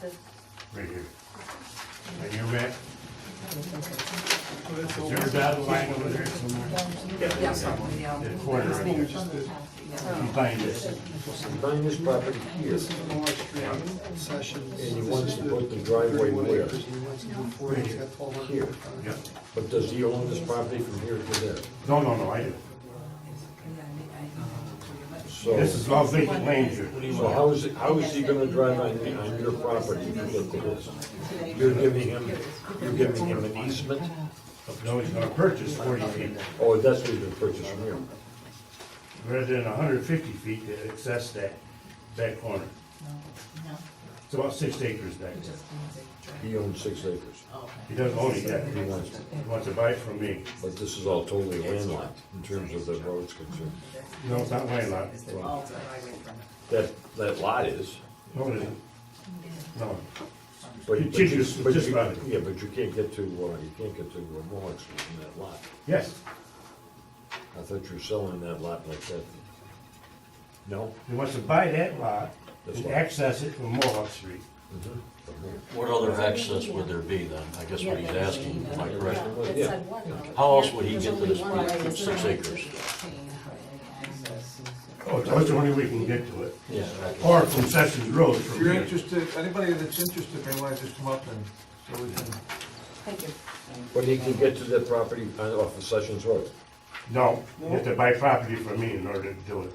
this? right here. Right here, Rick. Is there a dotted line over there somewhere? The quarter right here. You find this. Behind this property here, Sessions. And he wants to put the driveway where? Here. Yep. but does he own this property from here to there? No, no, no, I do. So, This is all vacant land here. so how is, it- how is he gonna drive on, on your property to get to this? You're giving him, you're giving him an easement? No, he's gonna purchase forty feet, Oh, that's what you're purchasing here. rather than hundred and fifty feet to access that, that corner. It's about six acres back there. He owns six acres, He doesn't own it yet, he wants, he wants to buy it from me. but this is all totally landlocked in terms of the roads concerned. No, it's not my lot. Well, That, that lot is, No, it isn't. No, but. It but you- just- but just you- about it. Yeah, but you can't get to, uh, you can't get to uh, Mohawk Street from that lot. yes, I thought you were selling that lot like that. No? he wants to buy that lot This and lot. access it from Mohawk Street. Mm-hmm. What other access would there be then? I guess what he's asking, am I correct? Yeah. How else would he get to this point with six acres? Oh, that's the only way we can get to it. Yeah. Or from Sessions Road If from you're here. interested, anybody that's interested may want to just come up and, so we can, Thank you. But he can get to that property uh, off of Sessions Road. No, you have to buy property from me in order to do it.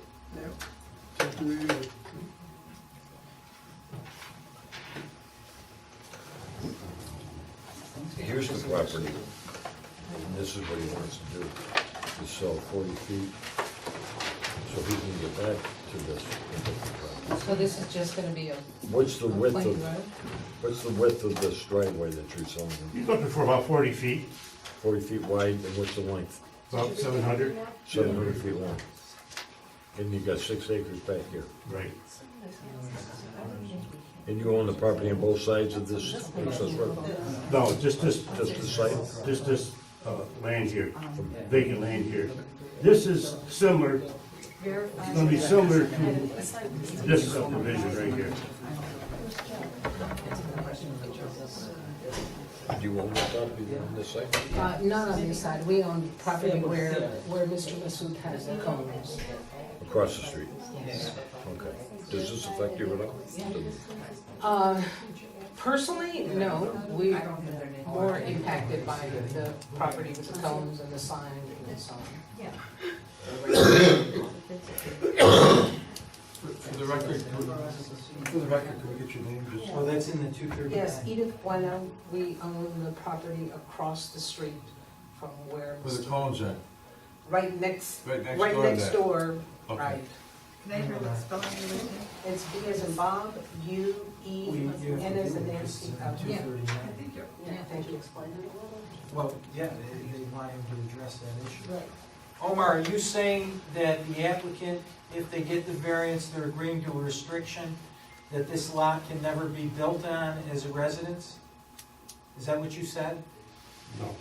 Here's the property. And this is what he wants to do, to sell forty feet, so he can get back to this. So this is just gonna be a What's the a width plain of, road? what's the width of this driveway that you're selling? him? He's looking for about forty feet, Forty feet wide, and what's the length? about seven hundred. Seven hundred feet long. And you got six acres back here. Right. And you own the property on both sides of this access road? No, just this, Just the site? just this uh, land here, vacant land here. This is similar, it's gonna be similar to this subdivision right here. Do you own the property on this side? Uh, not on this side, we own property where, where Mr. Masood has the cones. Across the street? Okay. Does this affect you at all? Uh, personally, no, we are more impacted by the property with the cones and the sign and so on. for for the record, could- for the record, could we get your name just? Oh, that's in the two thirty-nine? Yes, Edith Bueno, we own the property across the street from where, Where the cones are, right next, right next door right to next that. door, Okay. right. Can I hear what spelling you were doing? It's B as in Bob, U, E, We- yeah, N as in we- Nancy. it's, uh, uh, yeah. 239. Yeah, thank you. Explain it a little. Well, yeah, they, they want him to address that issue. Right. Omar, are you saying that the applicant, if they get the variance, they're agreeing to a restriction that this lot can never be built on as a residence? Is that what you said? No.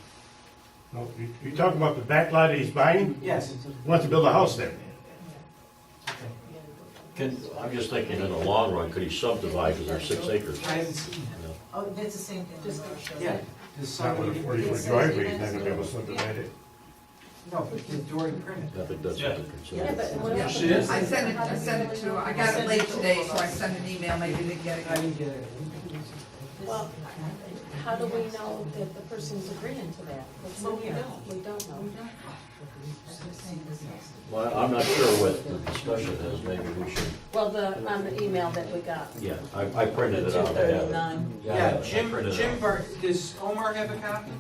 No, you, you talking about the back lot that he's buying? Yes. He Wants to build a house there. Can, I'm just thinking in the long run, could he subdivide, because there's six acres? I haven't seen that. Oh, that's the same thing. Yeah. Does It's not with somebody, a no, forty foot driveway, he's not gonna be able to subdivide it. but the door and perimeter. I think that's what they're considering. She is? I sent it, I sent it to, I got it late today, so I sent an email, maybe they get I it. didn't get it. Well, how do we know that the person's agreeing to that? Well, we don't, we don't know. Well, I'm not sure what the discussion is, maybe we should, Well, the, on the email that we got. yeah, I, I printed it out. I have 239. it. Yeah, I Jim, printed it Jim out. Bar, does Omar have a copy?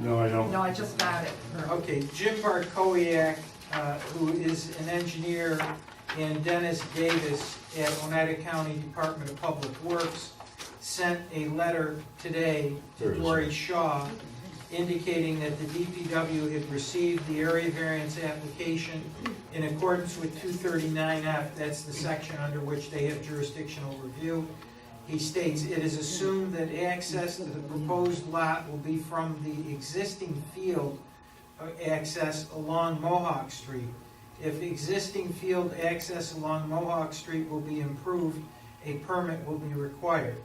No, I don't. No, I just got it. Okay, Jim Barkowiak, uh, who is an engineer, and Dennis Davis at Oneida County Department of Public Works sent a letter today There to it is. Dory Shaw indicating that the DPW had received the area variance application in accordance with 239F, that's the section under which they have jurisdictional review. He states, "It is assumed that access to the proposed lot will be from the existing field uh, access along Mohawk Street. If existing field access along Mohawk Street will be improved, a permit will be required.